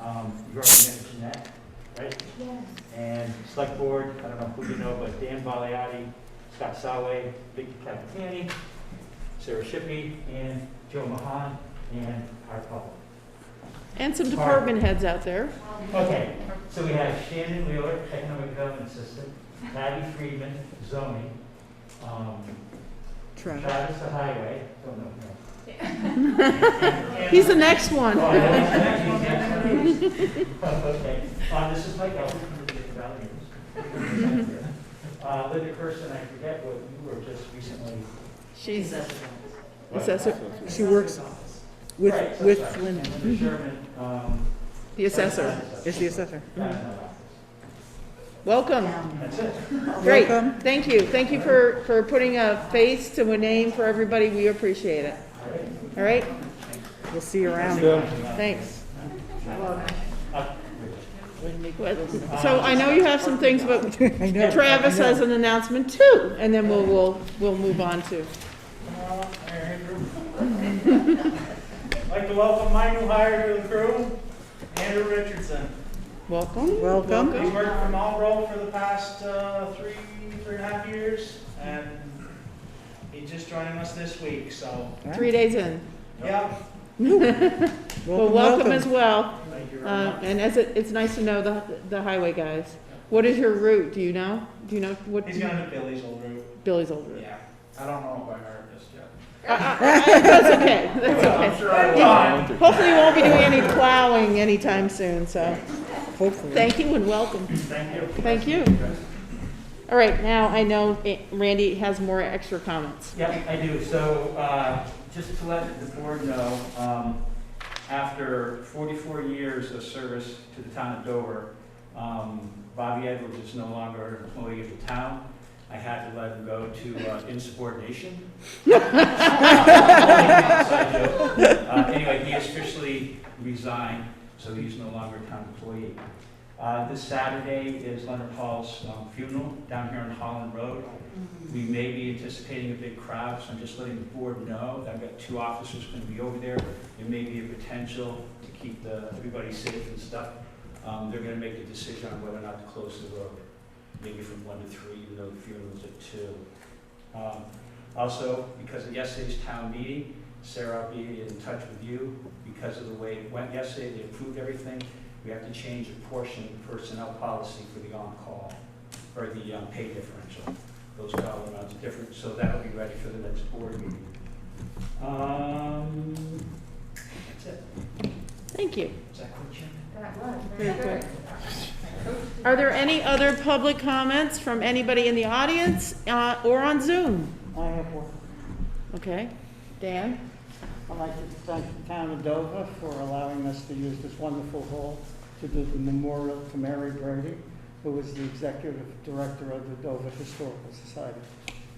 Um, select board, I don't know who you know, but Dan Valiati, Scott Saway, Vicky Capitani, Sarah Shippey, and Joe Mahan, and our public. And some department heads out there. Okay, so we have Shannon Wheeler, Economic Development Assistant, Patty Friedman, zoning, um, Travis the Highway, don't know him. He's the next one. Oh, yeah, he's next, he's next. Okay, uh, this is Mike Elton from the Values. Uh, Linda Kirsten, I forget what you were just recently, She's, Assessor. she works Right, With, so with sorry. Linda, Linda Sherman, um. the assessor. is the assessor. Yeah, Welcome. That's it. Great. Welcome. Thank you. Thank you for, for putting a face to a name for everybody. We appreciate it. All right. All right? We'll see you around. Thanks. Uh, What- So I know you have some things, but Travis has an announcement too, and then we'll, we'll, we'll move on to. I'd like to welcome my new hire to the crew, Andrew Richardson. Welcome. Welcome. He's worked for Marlboro for the past uh, three, three and a half years, and he's just joining us this week, so, Three days in. yeah. Well, welcome as well. Thank you very Uh, much. and as it, it's nice to know the, the highway guys. What is your route? Do you know? Do you know what? He's gonna do Billy's old route, Billy's old route. yeah. I don't know if I heard this yet. I- I- I- That's okay. That's okay. sure I Yeah. Hopefully, you won't be doing any plowing anytime soon. So, Hopefully. thank you and welcome. Thank you. Thank you. All right, now I know eh, Randy has more extra comments. Yep, I do. So, uh, just to let the board know, um, after 44 years of service to the town of Dover, um, Bobby Edwards is no longer an employee of the town. I had to let him go to uh, insubordination. Uh, Inside joke. Uh, Anyway, he officially resigned, so he's no longer a town employee. Uh, This Saturday is Leonard Hall's um, funeral down here on Holland Road. We may be anticipating a big crowd, so I'm just letting the board know. I've got two officers going to be over there. There may be a potential to keep the, everybody safe and stuff. Um, they're gonna make a decision on whether or not to close the road, maybe from one to three, even though the funeral's at two. Um, also, because of yesterday's town meeting, Sarah, I'll be in touch with you because of the way it went yesterday. They approved everything. We have to change a portion of personnel policy for the on-call, or the um, pay differential those dollar amounts are different, so that'll be ready for the next board meeting. Um, that's it. Thank you. Is that quick, Jim? Are there any other public comments from anybody in the audience uh, or on Zoom? I have one. Okay, Dan? I'd like to thank the town of Dover for allowing us to use this wonderful hall to do the memorial to Mary Brady, who was the executive director of the Dover Historical Society.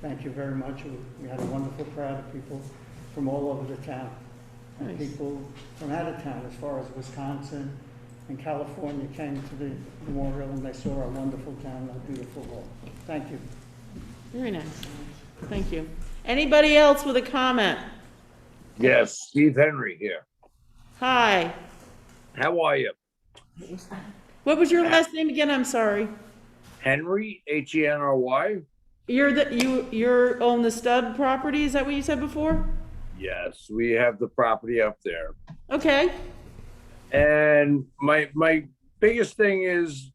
Thank you very much. We- We had a wonderful crowd of people from all over the town. And Nice. people from out of town, as far as Wisconsin and California, came to the memorial and they saw our wonderful town, our beautiful hall. Thank you. Very nice. Thank you. Anybody else with a comment? Yes, Steve Henry here. Hi. How are you? What was your last name again? I'm sorry. Henry, H E N R Y? You're the, you, you're on the Stubb property, is that what you said before? Yes, we have the property up there. Okay, And my my biggest thing is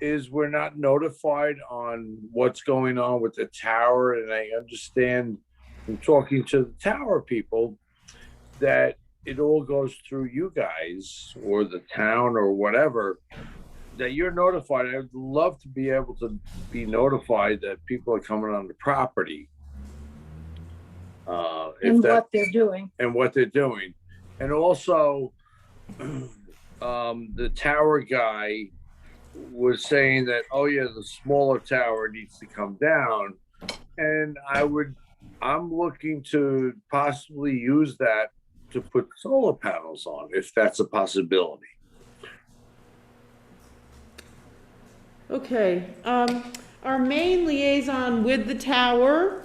is we're not notified on what's going on with the tower and I understand from talking to the tower people that it all goes through you guys or the town or whatever that you're notified. I'd love to be able to be notified that people are coming on the property. Uh, if and that- what they're doing. and what they're doing. And also, um, the tower guy was saying that, oh yeah, the smaller tower needs to come down. And I would, I'm looking to possibly use that to put solar panels on, if that's a possibility. okay. Um, our main liaison with the tower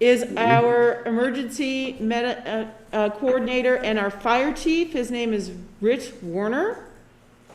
is our emergency meta, uh, uh, coordinator and our fire chief. His name is Rich Warner.